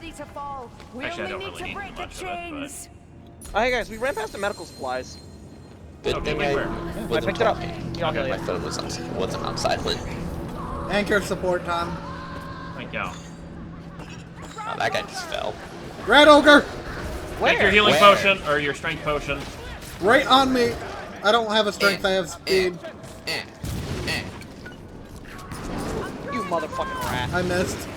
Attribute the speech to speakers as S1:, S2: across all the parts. S1: to fall. We
S2: Actually, I
S1: only
S2: don't
S1: need
S2: really
S1: to
S2: need
S1: break the
S2: much of it, but-
S1: chains.
S3: Oh, hey guys, we ran past the medical supplies.
S4: Good
S2: Okay,
S4: thing
S2: wait,
S4: I
S2: where?
S3: I
S4: wasn't
S3: picked it up.
S4: talking.
S3: Yeah, I'll tell
S4: My
S3: you.
S4: phone was on, wasn't on silent.
S5: Anchor support, Tom.
S2: Thank you.
S4: Oh, that guy just fell.
S5: Red Ogre!
S2: Take your
S3: Where?
S2: healing
S4: Where?
S2: potion or your strength potion.
S5: Right on me! I don't have a strength, I have speed.
S4: Eh, eh.
S3: You motherfucking rat.
S5: I missed.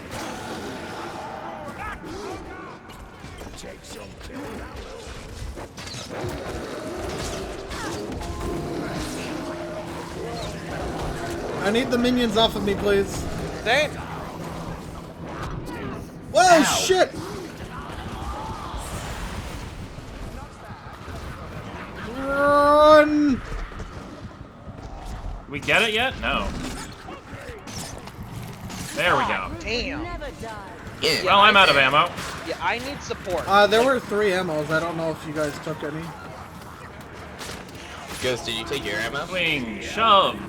S5: I need the minions off of me, please.
S3: Same.
S5: Whoa,
S4: Ow.
S5: shit! Run!
S2: We get it yet? No. There we go.
S3: Damn.
S1: Never die.
S4: Yeah.
S2: Well, I'm out of ammo.
S3: Yeah, I need support.
S5: Uh, there were three ammos. I don't know if you guys took any.
S4: Ghost, did you take your ammo?
S2: Swing, shove.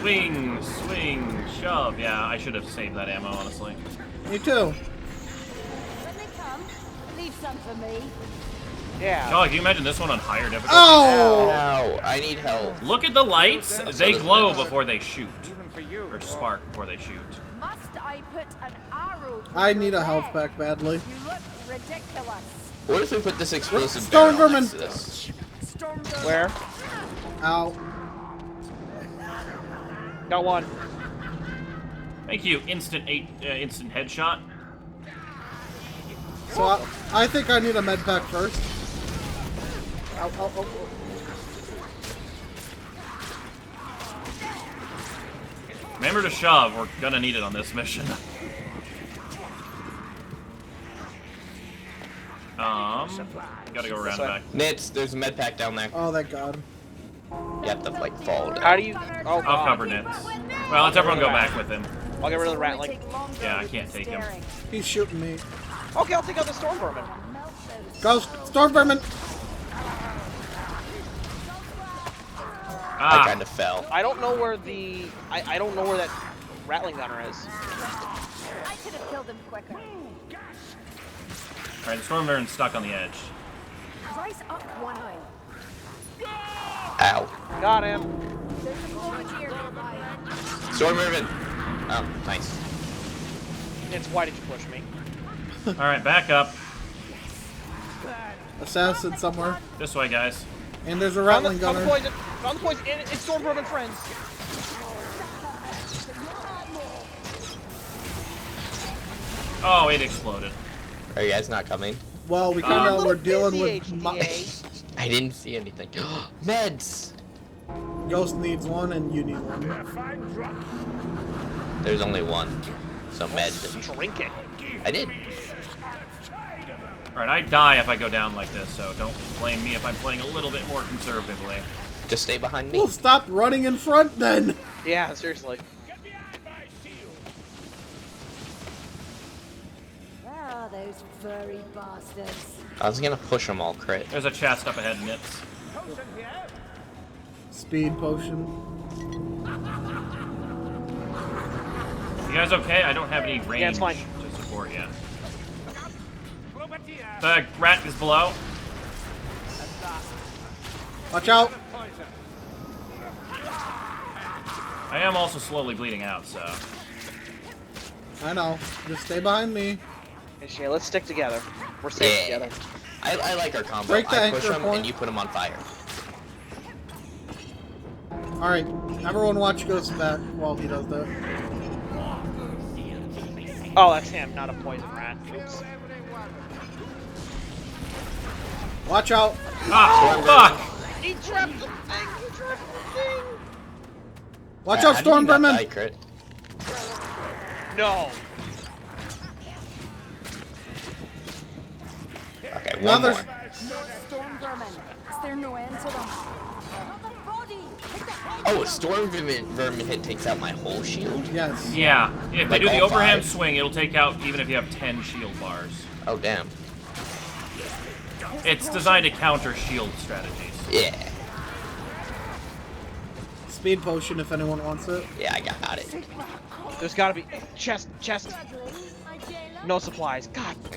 S2: Swing, swing, shove. Yeah, I should have saved that ammo, honestly.
S5: Me too.
S1: When they come, leave some for me.
S3: yeah.
S2: Oh, can you imagine this one on higher difficulty?
S5: Oh!
S4: No, I need help.
S2: Look at the lights. They
S4: does
S2: glow
S4: this.
S2: before they shoot,
S6: Even for you.
S2: or spark before they shoot.
S1: Must I put an arrow? through
S5: I need
S1: your
S5: a health
S1: leg?
S5: pack badly.
S1: You look ridiculous.
S4: What if we put this explosive
S5: Stone
S4: barrel
S5: vermin.
S4: next to this?
S1: Storm
S3: Where?
S5: Ow.
S3: Got one.
S2: Thank you. Instant eight, uh, instant headshot.
S5: So I, I think I need a med pack first. Ow, ow, ow, ow.
S2: Remember to shove. We're gonna need it on this mission. Um, gotta go around
S3: way.
S2: back.
S4: Nits, there's a med pack down there.
S5: Oh, thank God.
S4: You have to like fall
S1: Ah.
S4: down.
S3: How do you? Oh
S2: I'll
S3: god.
S2: cover Nits. Well, let's everyone go back with him.
S3: I'll get rid of the rat. Like,
S2: Yeah, I can't take him.
S5: He's shooting me.
S3: okay, I'll take out the storm vermin.
S5: Go, storm vermin.
S4: I
S2: Ah,
S4: kind of fell.
S3: I don't know where the. I, I don't know where that rattling gunner is.
S1: I could have killed him quicker.
S2: all right. The storm baron's stuck on the edge.
S1: Rise up one eye.
S4: Ow.
S3: Got him.
S1: There's a grenadier nearby.
S4: Storm Irvin. Oh, nice.
S3: It's why did you push me?
S2: All right, back up.
S5: Assassin somewhere.
S2: This way, guys.
S5: And there's a
S3: Found
S5: rattling
S3: the, found the
S5: gunner.
S3: poison. Found the poison. And it's storm vermin friends.
S2: Oh, it exploded.
S4: Are you guys not coming?
S5: Well, we
S2: Uh,
S5: kind
S2: I'm a
S5: of
S3: little
S5: we're dealing
S3: busy,
S5: with my,
S3: HDA.
S4: I didn't see anything. Meds.
S5: Ghost needs one and you need one.
S4: There's only one. So med.
S3: Drink it.
S4: I did.
S2: All right, I die if I go down like this, so don't blame me if I'm playing a little bit more conservatively.
S4: Just stay behind me.
S5: Well, stop running in front then.
S3: Yeah, seriously.
S1: Ah, those furry bastards.
S4: I was gonna push them all crit.
S2: There's a chest up ahead, Nits.
S5: Speed potion.
S2: You guys okay? I don't have any range
S3: Yeah, it's fine.
S2: to support yet. The rat is below.
S5: Watch out.
S2: I am also slowly bleeding out, so.
S5: I know. Just stay behind me.
S3: Hey, Shay, let's stick together. We're safe
S4: Yeah.
S3: together.
S4: I, I like our combo.
S5: Break the
S4: I push
S5: anchor
S4: them
S5: point.
S4: and you put them on fire.
S5: All right, everyone, watch Ghost back while he does that.
S3: Oh, that's him, not a poison rat. Oops.
S5: Watch out.
S2: Ah, fuck!
S3: He trapped the thing. He trapped the thing.
S5: Watch
S4: Uh,
S5: out,
S4: how did
S5: storm
S4: you not die
S5: vermin.
S4: crit?
S3: No.
S4: Okay, one
S5: Another.
S4: more.
S1: Lord Storm Vermin. Is there no end to them? Not the body! Hit the head!
S4: Oh, a storm vermin, vermin hit takes out my whole shield.
S5: Yes.
S2: Yeah, if they
S4: Like
S2: do the
S4: all
S2: overhand
S4: five?
S2: swing, it'll take out even if you have 10 shield bars.
S4: Oh damn.
S2: It's designed to counter shield strategies.
S4: Yeah.
S5: Speed potion if anyone wants it.
S4: Yeah, I got it.
S3: There's gotta be chest, chest.
S1: Struggling, my jailer?
S3: No supplies. God